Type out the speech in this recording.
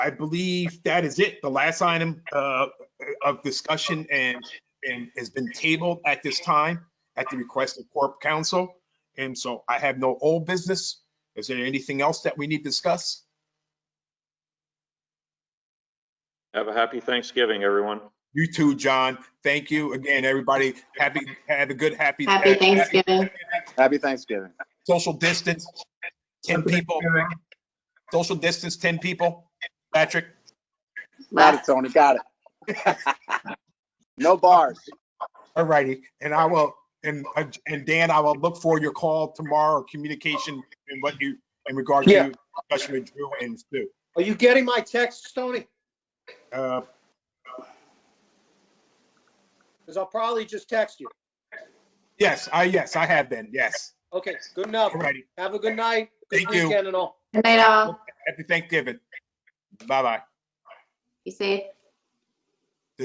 I believe that is it. The last item uh, of discussion and, and has been tabled at this time at the request of Corp Counsel. And so I have no old business. Is there anything else that we need to discuss? Have a happy Thanksgiving, everyone. You too, John. Thank you again, everybody. Happy, have a good, happy. Happy Thanksgiving. Happy Thanksgiving. Social distance, 10 people. Social distance, 10 people. Patrick? Got it, Tony, got it. No bars. All righty, and I will, and, and Dan, I will look for your call tomorrow, or communication and what you, in regard Yeah. to discussion with Drew and Stu. Are you getting my texts, Tony? Uh, Because I'll probably just text you. Yes, I, yes, I have been, yes. Okay, good enough. All righty, Have a good night. Good Thank you. weekend and all. Good night, all. happy Thanksgiving. Bye-bye. Be safe.